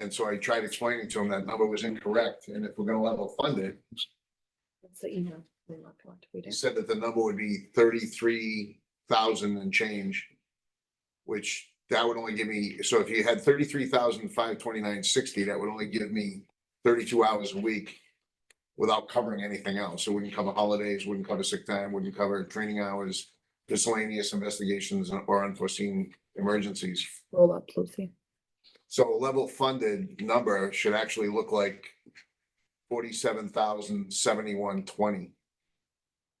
And so I tried explaining to him that number was incorrect, and if we're gonna level fund it, That's the email. we want to read he it. said that the number would be thirty-three thousand and change. Which that would only give me, so if you had thirty-three thousand five twenty-nine sixty, that would only give me thirty-two hours a week. Without covering anything else. It wouldn't cover holidays, wouldn't cover sick time, wouldn't cover training hours, miscellaneous investigations or unforeseen emergencies. Roll up, Lucy. So a level funded number should actually look like forty-seven thousand seventy-one twenty.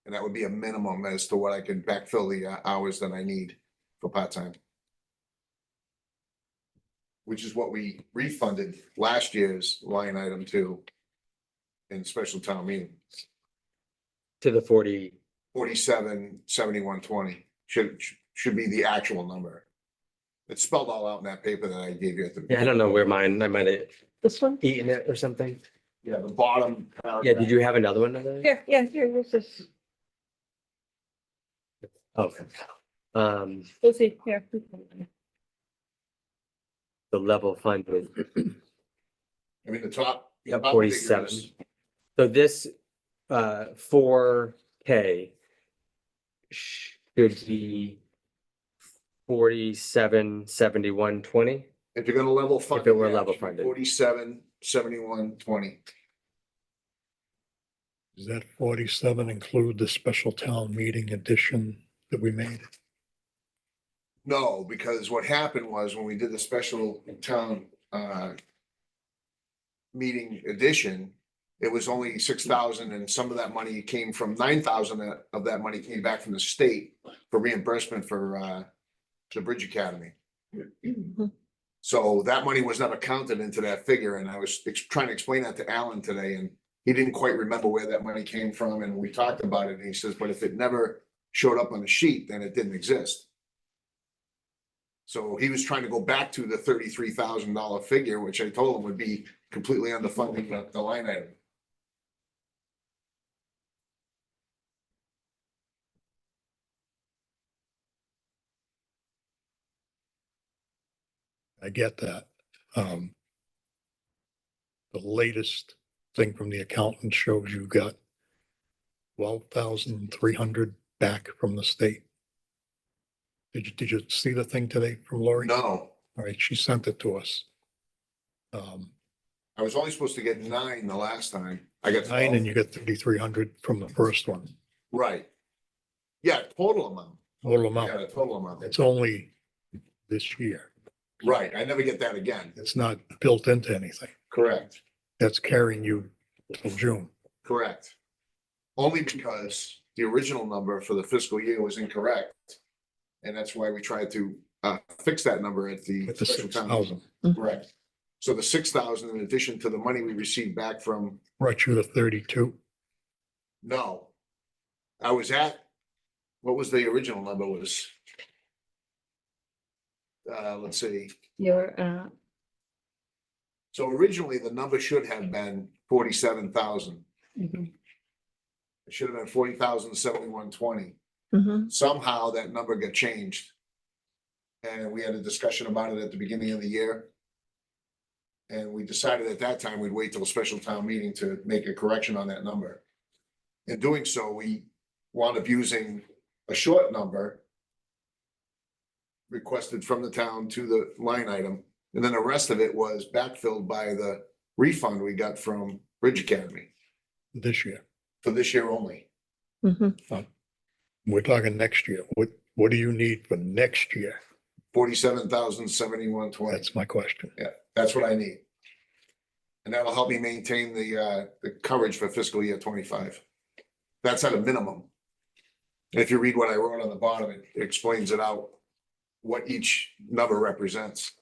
And that would be a minimum as to what I can backfill the uh, hours that I need for part-time. Which is what we refunded last year's line item to in special town meeting, to the forty, forty-seven seventy-one twenty should, should be the actual number. It's spelled all out in that paper that I gave you at the. yeah, I don't know where mine, I might have This one? eaten it or something. Yeah, the bottom. Yeah, did you have another one? of those? Here, yeah, here, this is, Okay. Um, Lucy, here. the level funded, I mean, the top. the Yep, top figure 47. is- so this, uh, four K should be forty-seven, seventy-one, twenty? If you're gonna level fund. it were level funded. Forty-seven, seventy-one, twenty. Does that forty-seven include the special town meeting addition that we made? No, because what happened was when we did the special town, uh, meeting edition, it was only six thousand and some of that money came from nine thousand of that money came back from the state for reimbursement for, uh, the Bridge Academy. So that money was never counted into that figure, and I was ex- trying to explain that to Alan today, and he didn't quite remember where that money came from, and we talked about it, and he says, but if it never showed up on the sheet, then it didn't exist. So he was trying to go back to the thirty-three thousand dollar figure, which I told him would be completely underfunding the- the line item. I get that. Um. The latest thing from the accountant shows you got twelve thousand three hundred back from the state. Did you, did you see the thing today from Lori? No, All right, she sent it to us. Um, I was only supposed to get nine the last time. I got nine and twelve. you got thirty-three hundred from the first one, Right. Yeah, total amount. total Yeah, the amount. total amount. It's only this year. Right, I never get that again. It's not built into anything. Correct. That's carrying you till June. Correct. Only because the original number for the fiscal year was incorrect. And that's why we tried to uh fix that number at the. With the special six town. thousand, Correct. So the six thousand in addition to the money we received back from, brought you to thirty-two. no. I was at, what was the original number was? Uh, let's see. Your, uh, So originally, the number should have been forty-seven thousand. mhm, It should have been forty thousand seventy-one twenty. mhm. somehow that number got changed. And we had a discussion about it at the beginning of the year. And we decided at that time, we'd wait till a special town meeting to make a correction on that number. In doing so, we wound up using a short number requested from the town to the line item, and then the rest of it was backfilled by the refund we got from Bridge Academy this year. for this year only. mhm. We're talking next year. What, what do you need for next year? Forty-seven thousand seventy-one twenty. That's my question. That's what I need. And that'll help me maintain the, uh, the coverage for fiscal year twenty-five. That's at a minimum. And If you read what I wrote on the bottom, it explains it out, what each number represents.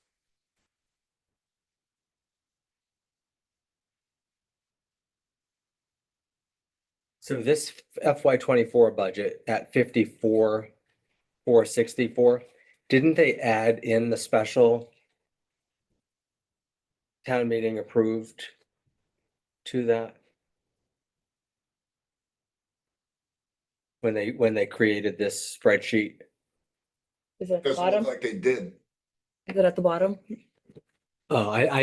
So this FY twenty-four budget at fifty-four, four sixty-four, didn't they add in the special town meeting approved to that? When they, when they created this spreadsheet, Is it at the Doesn't look bottom? like they did. Is it at the bottom? oh, I, I